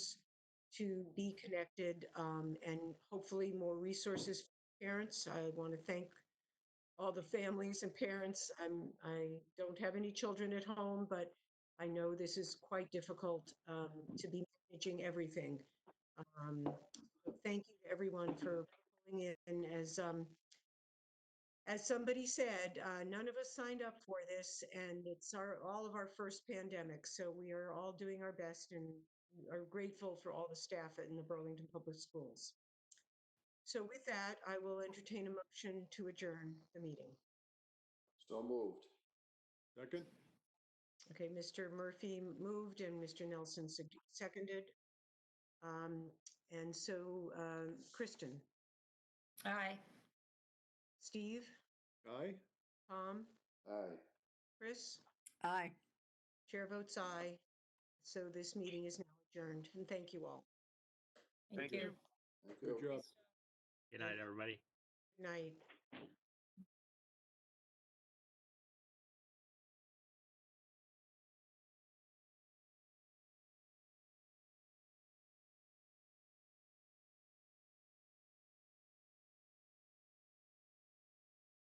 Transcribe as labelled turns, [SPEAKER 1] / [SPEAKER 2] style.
[SPEAKER 1] to be connected um, and hopefully more resources for parents. I want to thank all the families and parents. I'm, I don't have any children at home, but I know this is quite difficult um, to be managing everything. Um, so Thank you to everyone for pulling in. As, um, as somebody said, uh, none of us signed up for this, and it's our, all of our first pandemic. So we are all doing our best and we are grateful for all the staff in the Burlington Public Schools. So with that, I will entertain a motion to adjourn the meeting.
[SPEAKER 2] So moved.
[SPEAKER 3] Second?
[SPEAKER 1] Okay, Mr. Murphy moved and Mr. Nelson sec- seconded. Um, And so um, Kristen,
[SPEAKER 4] Aye.
[SPEAKER 1] Steve,
[SPEAKER 3] Aye?
[SPEAKER 1] Tom,
[SPEAKER 2] Aye.
[SPEAKER 1] Chris,
[SPEAKER 5] Aye.
[SPEAKER 1] chair votes aye. So this meeting is now adjourned, and thank you all.
[SPEAKER 4] Thank you.
[SPEAKER 2] Thank you.
[SPEAKER 3] Good job.
[SPEAKER 6] Good night, everybody.
[SPEAKER 1] Good night.